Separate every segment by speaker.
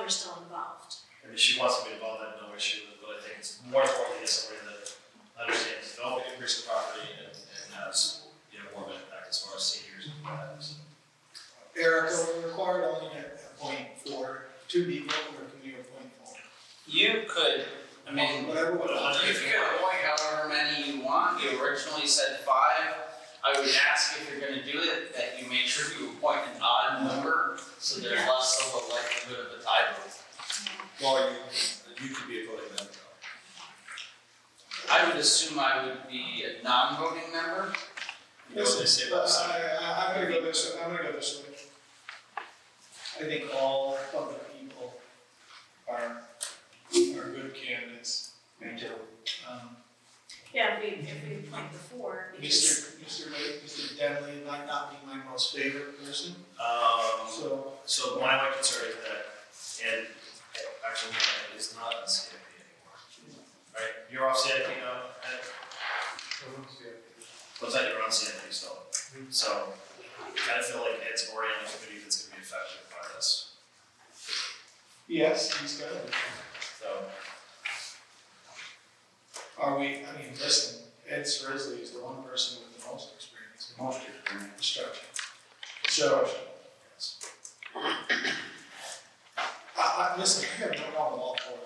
Speaker 1: we're still involved.
Speaker 2: I mean, she wants to be involved, I have no issue with, it, but I think it's more important to get somebody that understands developing commercial property and, and has, you know, more of an impact as far as seniors and that.
Speaker 3: Erica, we required only to appoint four, two people, or can we appoint four?
Speaker 4: You could, I mean,
Speaker 3: Whatever, whatever.
Speaker 4: if you could appoint however many you want, you originally said five. I would ask if you're gonna do it, that you make sure you appoint an odd number, so there's less of a likelihood of a tie vote.
Speaker 5: Well, you, you could be a voting member.
Speaker 4: I would assume I would be a non-voting member.
Speaker 2: You know what they say about
Speaker 3: But
Speaker 2: seniors.
Speaker 3: I, I, I'm gonna go this, I'm gonna go this way. I think all of the people are, are good candidates.
Speaker 2: Me too.
Speaker 3: Um,
Speaker 1: Yeah, if we, if we appoint the four, because
Speaker 3: Mr. Mr. Wade, Mr. Denley might not be my most favorite person,
Speaker 2: Um,
Speaker 3: so,
Speaker 2: So my only concern is that, and actually, no, it is not on CIP anymore. Right, you're off CIP now, Ed? Looks like you're on CIP still. So, I kind of feel like Ed's already on the committee that's gonna be affected by this,
Speaker 3: yes, he's got it.
Speaker 2: so.
Speaker 3: Are we, I mean, listen, Ed Srisley is the one person with the most experience in
Speaker 5: Most experience.
Speaker 3: construction. So,
Speaker 2: yes.
Speaker 3: I, I, listen, I have no problem with all four.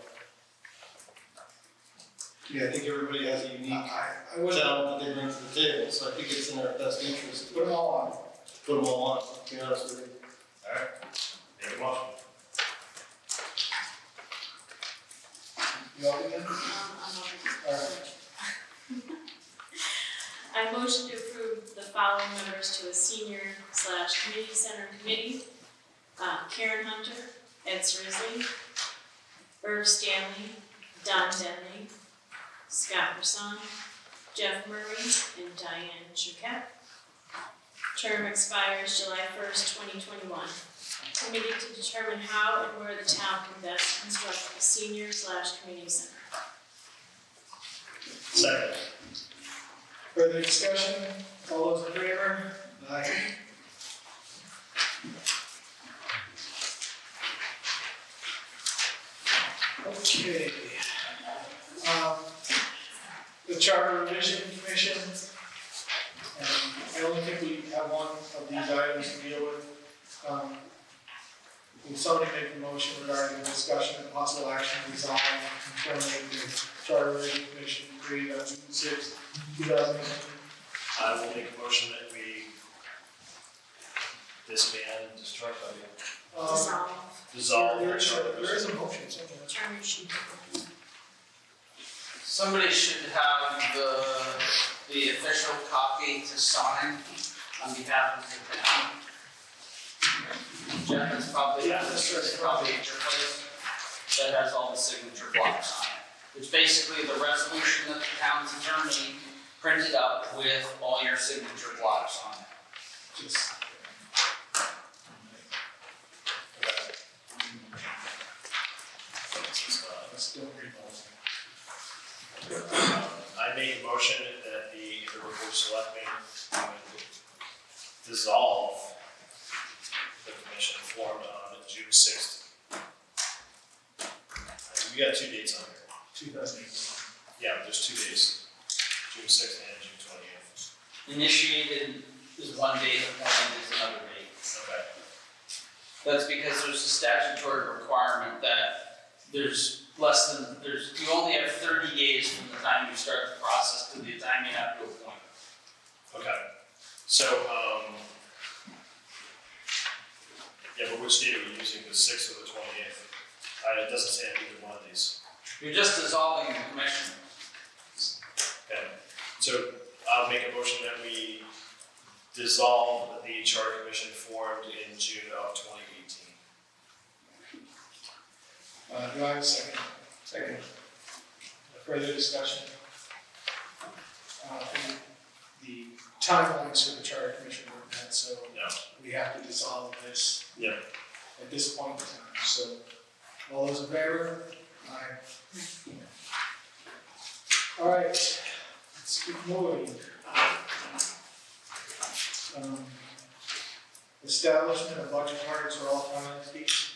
Speaker 6: Yeah, I think everybody has a unique
Speaker 3: I, I wouldn't,
Speaker 6: talent that they bring to the table, so I think it's in our best interest to
Speaker 3: put them all on.
Speaker 6: put them all on, to be honest with you.
Speaker 2: Alright, make a motion.
Speaker 3: You all good?
Speaker 1: um, I'm
Speaker 3: All
Speaker 1: on. I motion to approve the following members to a senior slash community center committee. Uh, Karen Hunter, Ed Srisley, Irv Stanley, Don Denley, Scott Person, Jeff Murray, and Diane Chukat. Term expires July first, twenty twenty-one. Committee to determine how and where the town can best construct a senior slash community center.
Speaker 2: Second.
Speaker 3: Further discussion, all those in favor? Aye. Okay. Um, The Charter Revision Commission. um, I only think we have one of these items to deal with. Um, Will somebody make a motion regarding the discussion and possible action resolving confirming the Charter Revision Commission created on June sixth, 2018.
Speaker 2: I will make a motion that we disband, destroy, I mean,
Speaker 3: Um,
Speaker 1: Dissolve,
Speaker 2: dissolve
Speaker 3: There
Speaker 2: the
Speaker 3: is,
Speaker 2: charter.
Speaker 3: a- there is a motion somewhere.
Speaker 1: term sheet.
Speaker 4: Somebody should have the, the official copy to sign on behalf of the town. Jeff is probably,
Speaker 3: Yeah, that's right.
Speaker 4: is probably at your place, that has all the signature blocks on it. It's basically the resolution that the town's attorney printed up with all your signature blocks on it.
Speaker 3: Just-
Speaker 2: It's, uh,
Speaker 3: Let's don't read those.
Speaker 2: I make a motion that the River Board of Selectmen dissolve the commission formed on June sixth. We got two dates on here.
Speaker 3: 2018.
Speaker 2: Yeah, there's two dates, June sixth and June twentieth.
Speaker 4: Initiated is one date, appointed is another date.
Speaker 2: Okay.
Speaker 4: That's because there's a statutory requirement that there's less than, there's, you only have thirty days from the time you start the process to the time you have to appoint.
Speaker 2: Okay, so, um, yeah, but which date are we using, the sixth or the twenty-eighth? Uh, it doesn't say on either one of these.
Speaker 4: You're just dissolving the commission.
Speaker 2: Okay, so I'll make a motion that we dissolve the charter commission formed in June of twenty eighteen.
Speaker 3: Uh, do I have a second? Second. Further discussion? Uh, and the timelines for the charter commission were met, so
Speaker 2: Yeah.
Speaker 3: we have to dissolve this.
Speaker 2: Yeah.
Speaker 3: At this point in time, so all those in favor? Aye. All right, let's keep moving. Um, Establishment of budget targets for all finance fees.